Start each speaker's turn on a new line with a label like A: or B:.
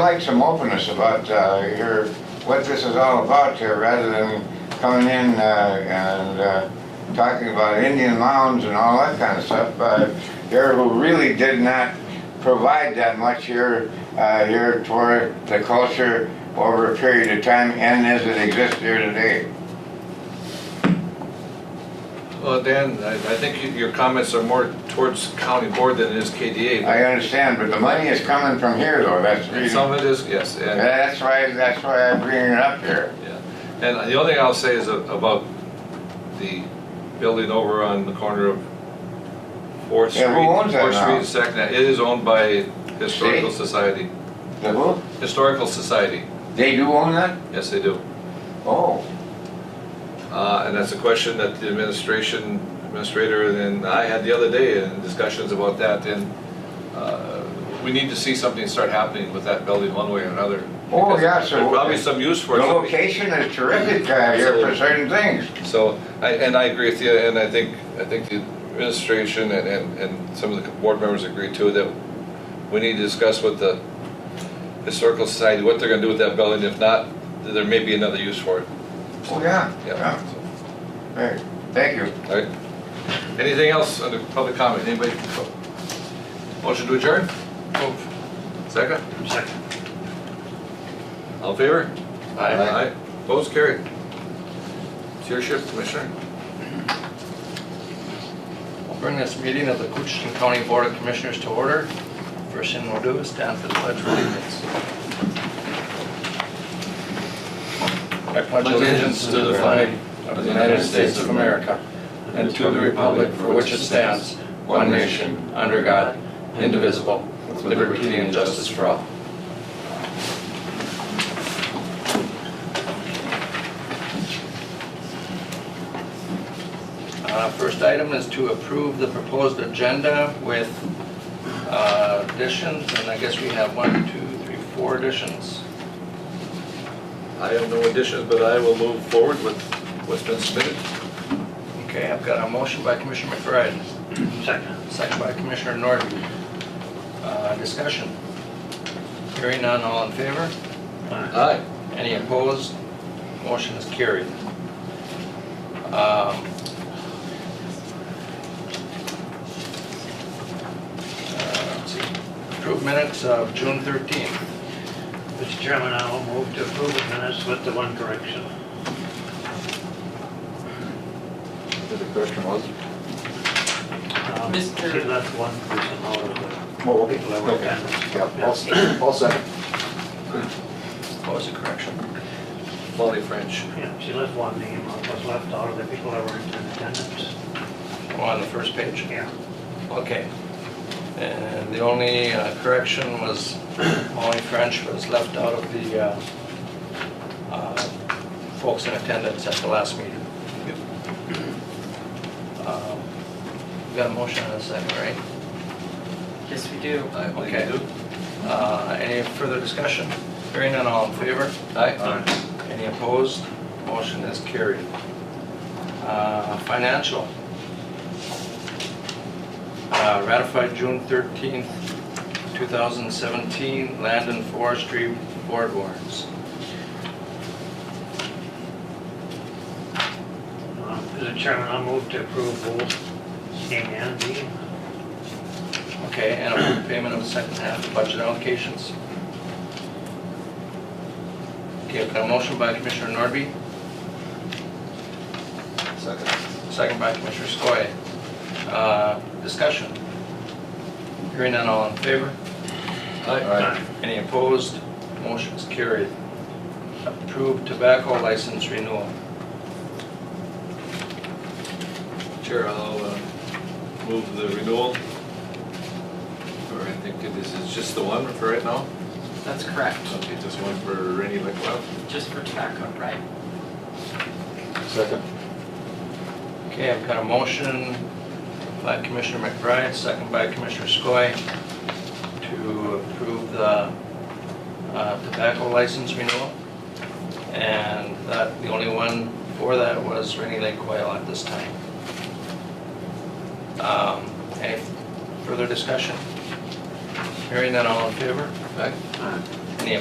A: like some openness about uh, your, what this is all about here, rather than coming in uh, and uh, talking about Indian mounds and all that kind of stuff. Uh, Here, who really did not provide that much here, uh, here toward the culture over a period of time and as it exists here today.
B: Well, Dan, I, I think you- your comments are more towards county board than it is KDA. but-
A: I understand, but the money is coming from here though, that's the
B: And
A: reason.
B: some of it is, yes, and,
A: That's why, that's why I'm bringing it up here.
B: yeah. And the only thing I'll say is a- about the building over on the corner of Fourth Street.
A: Yeah, who owns that
B: Fourth Street
A: now?
B: and Second, Ave. it is owned by Historical Society,
A: The who?
B: Historical Society,
A: They do own that?
B: yes, they do.
A: Oh,
B: Uh, and that's a question that the administration, administrator and I had the other day in discussions about that and, uh, we need to see something start happening with that building one way or another.
A: Oh,
B: Because
A: yeah, so-
B: There's probably some use
A: the
B: for it.
A: location is terrific uh, here for certain things.
B: So, I, and I agree with you, and I think, I think the administration and, and, and some of the board members agree too, that we need to discuss with the historical society, what they're gonna do with that building, if not, there may be another use for it,
A: Oh, yeah.
B: yeah. so.
A: Hey, Thank you.
B: All right. Anything else under public comment? Anybody? Motion to adjourn? Second?
C: Oh, Second.
B: All in favor?
C: Aye.
B: Opposed, carried. It's your shift, Commissioner.
C: We'll bring this meeting of the Coochin County Board of Commissioners to order. First thing we'll do is stand for the pledge of allegiance. I pledge allegiance to the flag of the United States of America and to the republic for which it stands, one nation, under God, indivisible, with liberty and justice for all. Uh, First item is to approve the proposed agenda with uh, additions, and I guess we have one, two, three, four additions.
B: I have no additions, but I will move forward with what's been submitted.
C: Okay, I've got a motion by Commissioner McBride. Second. Second by Commissioner Norton. Uh, Discussion. Hearing none, all in favor?
B: Aye.
C: Any opposed? Motion is carried. Um, uh, let's see. Approved minutes of June 13th.
D: Mr. Chairman, I will move to approve the minutes with the one correction.
B: The question was?
D: Um,
E: Mr.
D: She left one person out of the
F: Well, okay.
D: people that were
B: Okay.
F: Yeah,
D: attending.
F: I'll,
D: Yes.
F: s- I'll second.
C: What was the correction?
B: Molly French.
D: Yeah, she left one name, that was left out of the people that were in attendance.
C: Oh, On the first page?
D: Yeah.
C: Okay. And the only uh, correction was, only French was left out of the uh, uh, folks in attendance at the last meeting. Um, we Got a motion and a second, right?
E: Yes, we do.
B: I believe you
C: Okay.
B: do.
C: Uh, Any further discussion? Hearing none, all in favor?
B: Aye.
C: Any opposed? Motion is carried. Uh, Financial. Uh, Ratified June 13th, 2017, land and forestry board warrants.
D: Um, Mr. Chairman, I move to approve both name and deed.
C: Okay, and approve payment of the second half of budget allocations. Okay, I've got a motion by Commissioner Norby,
B: Second.
C: second by Commissioner Skoye. Uh, Discussion. Hearing none, all in favor?
B: Aye.
C: Any opposed? Motion is carried. Approved tobacco license renewal.
B: Chair, I'll uh, move the renewal. Or I think it is, it's just the one for right now?
E: That's correct.
B: Okay, just one for Rainy Lake Wild.
E: Just for tobacco, right?
F: Second.
C: Okay, I've got a motion by Commissioner McBride, second by Commissioner Skoye, to approve the uh, tobacco license renewal. And that, the only one for that was Rainy Lake Quail at this time. Um, Any further discussion? Hearing none, all in favor?
B: Aye.